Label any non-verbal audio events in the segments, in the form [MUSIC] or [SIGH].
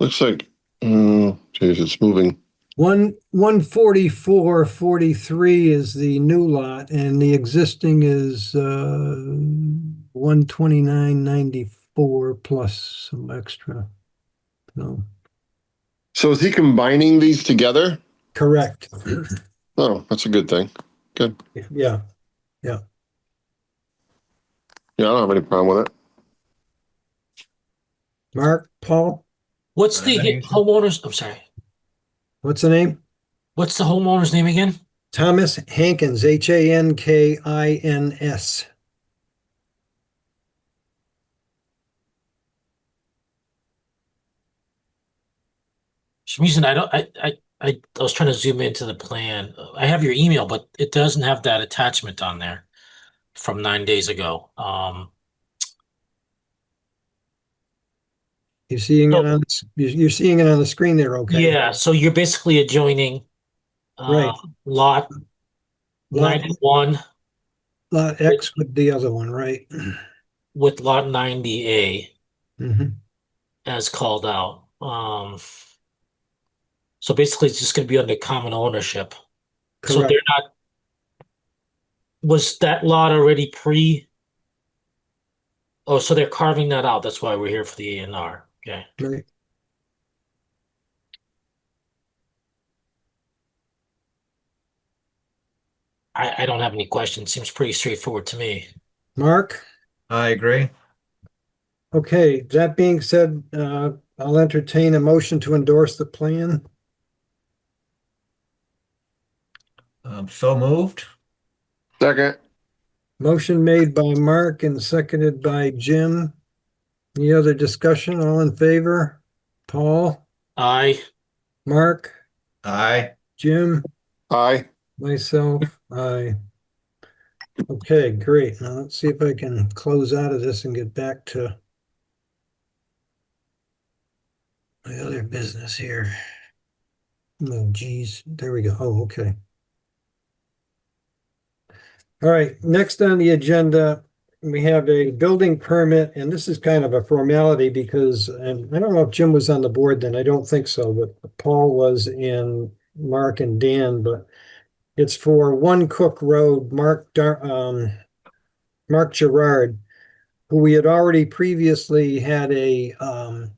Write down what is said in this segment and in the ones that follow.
Looks like, oh, geez, it's moving. One, one forty-four, forty-three is the new lot and the existing is, uh, one twenty-nine, ninety-four plus some extra. No, So is he combining these together? correct. Oh, that's a good thing. [CLEARS THROAT] Yeah, Yeah, I don't have any problem with it. Mark, Paul, What's the Alright, that hi- means- homeowner's, I'm sorry, what's the name? what's the homeowner's name again? Thomas Hankins, H A N K I N S. Some reason I don't, I, I, I, I was trying to zoom into the plan. I have your email, but it doesn't have that attachment on there from nine days ago. Um, You're seeing it on, you're you're seeing it on the screen there, okay? yeah, so you're basically adjoining uh, Right. lot Lot, ninety-one lot X with the other one, right? with lot ninety A. Mhm. as called out. Um, so basically, it's just going to be under common ownership. So Correct. they're not. Was that lot already pre? Oh, so they're carving that out. That's why we're here for the A and R. Okay. Right. I, I don't have any questions. Seems pretty straightforward to me. Mark? I agree. Okay, that being said, uh, I'll entertain a motion to endorse the plan. Um, so moved. Second, Motion made by Mark and seconded by Jim. Any other discussion? All in favor? Paul, I Mark, Aye. Jim, aye. myself, I. Okay, great. Now let's see if I can close out of this and get back to my other business here. Oh geez, there we go. Oh, okay. All right, next on the agenda, we have a building permit, and this is kind of a formality because, and I don't know if Jim was on the board then, I don't think so, but Paul was and Mark and Dan, but it's for One Cook Road, Mark, Dar- um, Mark Gerard, who we had already previously had a, um,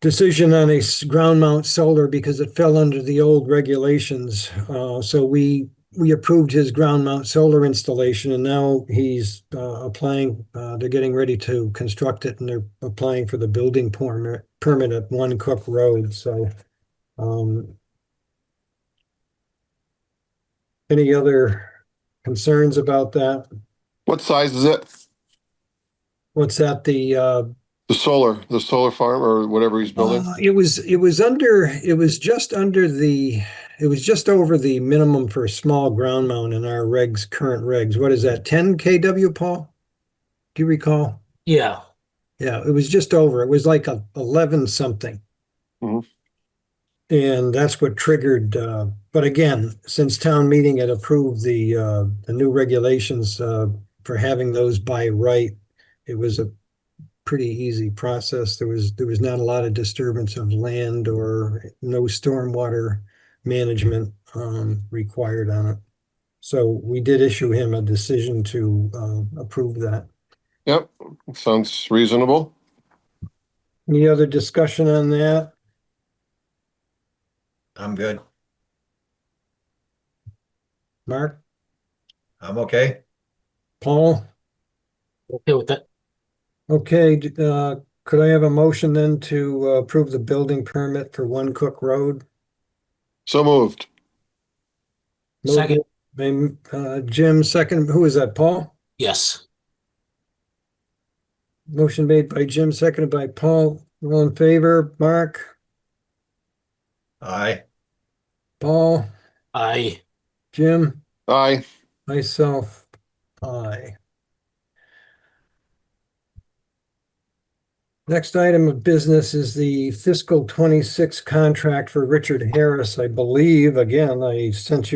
decision on a s- ground mount solar because it fell under the old regulations. Uh, so we, we approved his ground mount solar installation and now he's, uh, applying, uh, they're getting ready to construct it and they're applying for the building permit, permit at One Cook Road. So, um, any other concerns about that? What size is it? What's that, the, uh, The solar, the solar farm or whatever he's building? Uh, It was, it was under, it was just under the, it was just over the minimum for a small ground mount in our regs, current regs. What is that, ten KW, Paul? Do you recall? yeah. Yeah, it was just over. It was like a eleven something. Mhm. And that's what triggered, uh, but again, since town meeting had approved the, uh, the new regulations, uh, for having those by right, it was a pretty easy process. There was, there was not a lot of disturbance of land or no stormwater management, um, required on it. So we did issue him a decision to, uh, approve that. Yep, sounds reasonable. Any other discussion on that? I'm good. Mark, I'm okay. Paul, Okay with that. okay, d- uh, could I have a motion then to uh, approve the building permit for One Cook Road? So moved. Second. Motion by, uh, Jim, second, who is that, Paul? Yes. Motion made by Jim, seconded by Paul, all in favor, Mark, Aye. Paul, I Jim? Aye. Myself, I. Next item of business is the fiscal twenty-six contract for Richard Harris. I believe, again, I sent you.